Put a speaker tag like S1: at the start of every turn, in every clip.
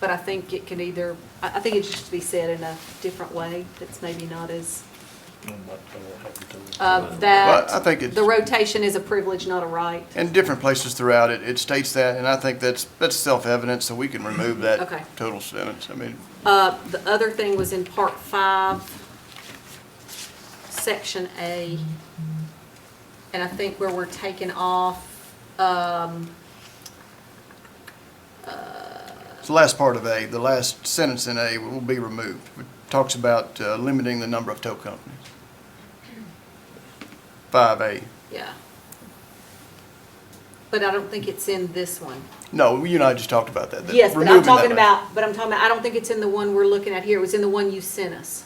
S1: but I think it can either, I, I think it should be said in a different way that's maybe not as, uh, that.
S2: Well, I think it's-
S1: The rotation is a privilege, not a right.
S2: In different places throughout it, it states that, and I think that's, that's self-evident, so we can remove
S1: Mm-hmm. Okay.
S2: that total sentence. I mean,
S1: Uh, the other thing was in part five, section A. And I think where we're taking off, um, uh,
S2: it's the last part of A, the last sentence in A will be removed. It talks about uh, limiting the number of tow companies. Five A.
S1: yeah. But I don't think it's in this one.
S2: No, you and I just talked about that. that
S1: Yes, but I'm
S2: removing that
S1: talking
S2: language.
S1: about, but I'm talking about, I don't think it's in the one we're looking at here. It was in the one you sent us.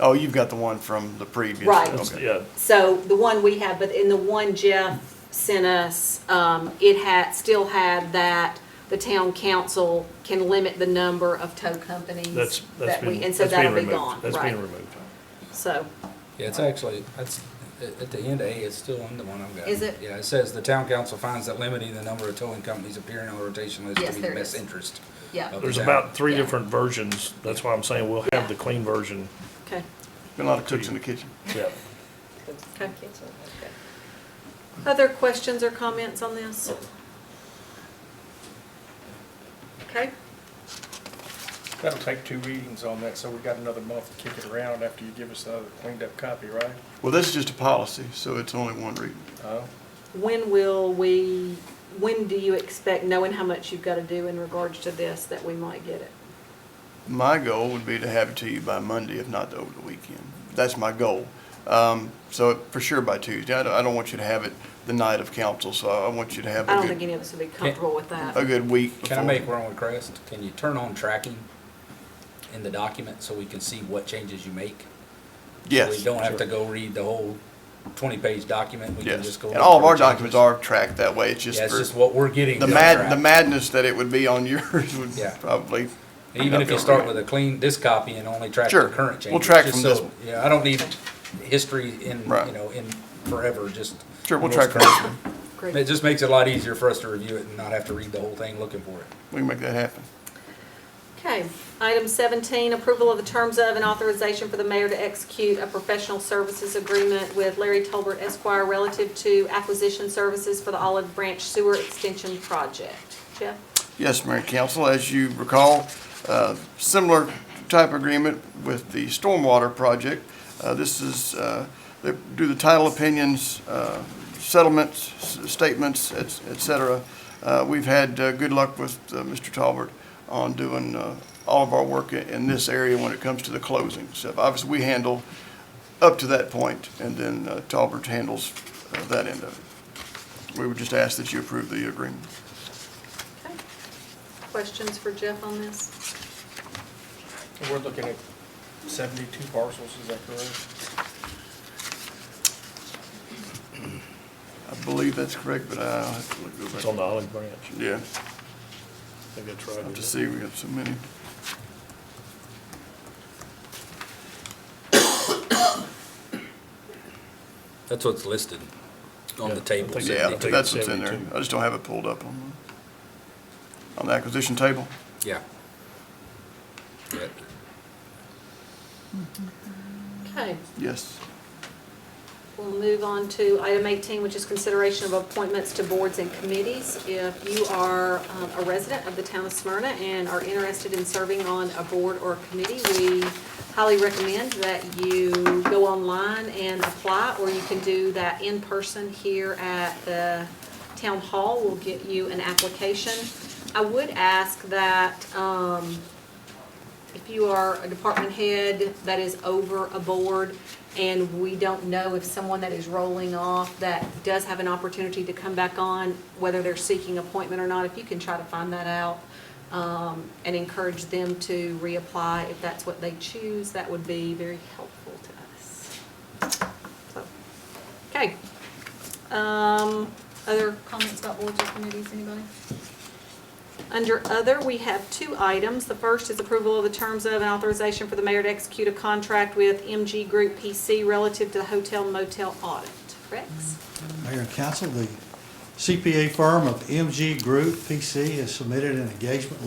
S2: Oh, you've got the one from the previous.
S1: Right.
S2: okay.
S3: Yeah,
S1: So the one we have, but in the one Jeff sent us, um, it had, still had that the town council can limit the number of tow companies.
S3: that's, that's
S1: that we-
S3: been,
S1: And so
S3: that's
S1: that'll
S3: being
S1: be
S3: removed.
S1: gone,
S3: That's
S1: right.
S3: being removed.
S1: So,
S4: Yeah, it's actually, that's, at at the end of A, it's still in the one I've got.
S1: Is it?
S4: Yeah, it says the town council finds that limiting the number of towing companies appearing on the rotation list
S1: Yes,
S4: to be the
S1: there it
S4: best
S1: is.
S4: interest.
S1: yeah,
S4: of the
S3: There's
S4: town.
S3: about three
S1: Yeah.
S3: different versions. That's why I'm saying we'll
S1: Yeah.
S3: have the clean version.
S1: okay,
S2: Been a lot of cooks in the kitchen.
S3: Yeah.
S1: okay. Other questions or comments on this? Okay,
S5: That'll take two readings on that, so we got another month to kick it around after you give us the cleaned up copy, right?
S2: Well, this is just a policy, so it's only one reading.
S5: Oh,
S1: when will we, when do you expect, knowing how much you've got to do in regards to this, that we might get it?
S2: My goal would be to have it to you by Monday, if not over the weekend. That's my goal. Um, so for sure by Tuesday. I don't, I don't want you to have it the night of council, so I want you to have
S1: I don't
S2: a
S1: think
S2: good,
S1: any of us would be comfortable with that.
S2: a good week before.
S4: Can I make one request? Can you turn on tracking in the document so we can see what changes you make? So
S2: Yes.
S4: We don't have to go read the whole twenty-page document. We can
S2: Yes.
S4: just go.
S2: And all of our
S4: over changes.
S2: documents are tracked that way. It's just
S4: Yeah, it's
S2: for
S4: just what we're getting.
S2: the
S4: is
S2: mad,
S4: tracked.
S2: the madness that it would be on yours would
S4: Yeah.
S2: probably.
S4: Even if you start with a clean, this copy and only track
S2: Sure.
S4: the current changes.
S2: We'll track
S4: just
S2: from this
S4: so-
S2: one.
S4: Yeah, I don't need history in, you
S2: Right.
S4: know, in forever, just.
S2: Sure, we'll
S4: most
S2: track from
S4: current.
S2: this one.
S1: Great.
S4: It just makes it a lot easier for us to review it and not have to read the whole thing looking for it.
S2: We can make that happen.
S1: Okay, item seventeen, approval of the terms of and authorization for the mayor to execute a professional services agreement with Larry Tolbert Esquire relative to acquisition services for the Olive Branch Sewer Extension Project. Jeff?
S2: Yes, Mayor and Council, as you recall, uh, similar type agreement with the stormwater project. Uh, This is, uh, they do the title opinions, uh, settlements, s- statements, et et cetera. Uh, We've had uh, good luck with uh, Mr. Talbert on doing uh, all of our work i- in this area when it comes to the closing stuff. Obviously, we handle up to that point, and then uh, Talbert handles uh, that end of it. We would just ask that you approve the agreement.
S1: Okay. Questions for Jeff on this?
S5: and we're looking at seventy-two parcels, is that correct?
S2: I believe that's correct, but I'll have to look over.
S3: It's on the olive branch.
S2: Yeah,
S3: I think that's
S2: I'll
S3: right.
S2: just
S3: isn't
S2: see, we got so many.
S4: That's what's listed on
S3: Yeah,
S4: the
S3: I
S4: table.
S3: think-
S2: Yeah,
S3: I think
S2: that's
S3: it's
S2: what's in there.
S3: 72.
S2: I just don't have it pulled up on, the- on the acquisition table.
S4: Yeah. Yeah.
S1: Okay,
S2: Yes.
S1: we'll move on to item eighteen, which is consideration of appointments to boards and committees. If you are um, a resident of the town of Smyrna and are interested in serving on a board or committee, we highly recommend that you go online and apply, or you can do that in person here at the town hall. We'll get you an application. I would ask that, um, if you are a department head that is over a board and we don't know if someone that is rolling off that does have an opportunity to come back on, whether they're seeking appointment or not, if you can try to find that out um, and encourage them to reapply if that's what they choose, that would be very helpful to us. So, Okay. Um, Other comments about boards or committees, anybody? Under other, we have two items. The first is approval of the terms of and authorization for the mayor to execute a contract with MG Group PC relative to the hotel motel audit. Rex?
S6: Mayor and council, the CPA firm of MG Group PC has submitted an engagement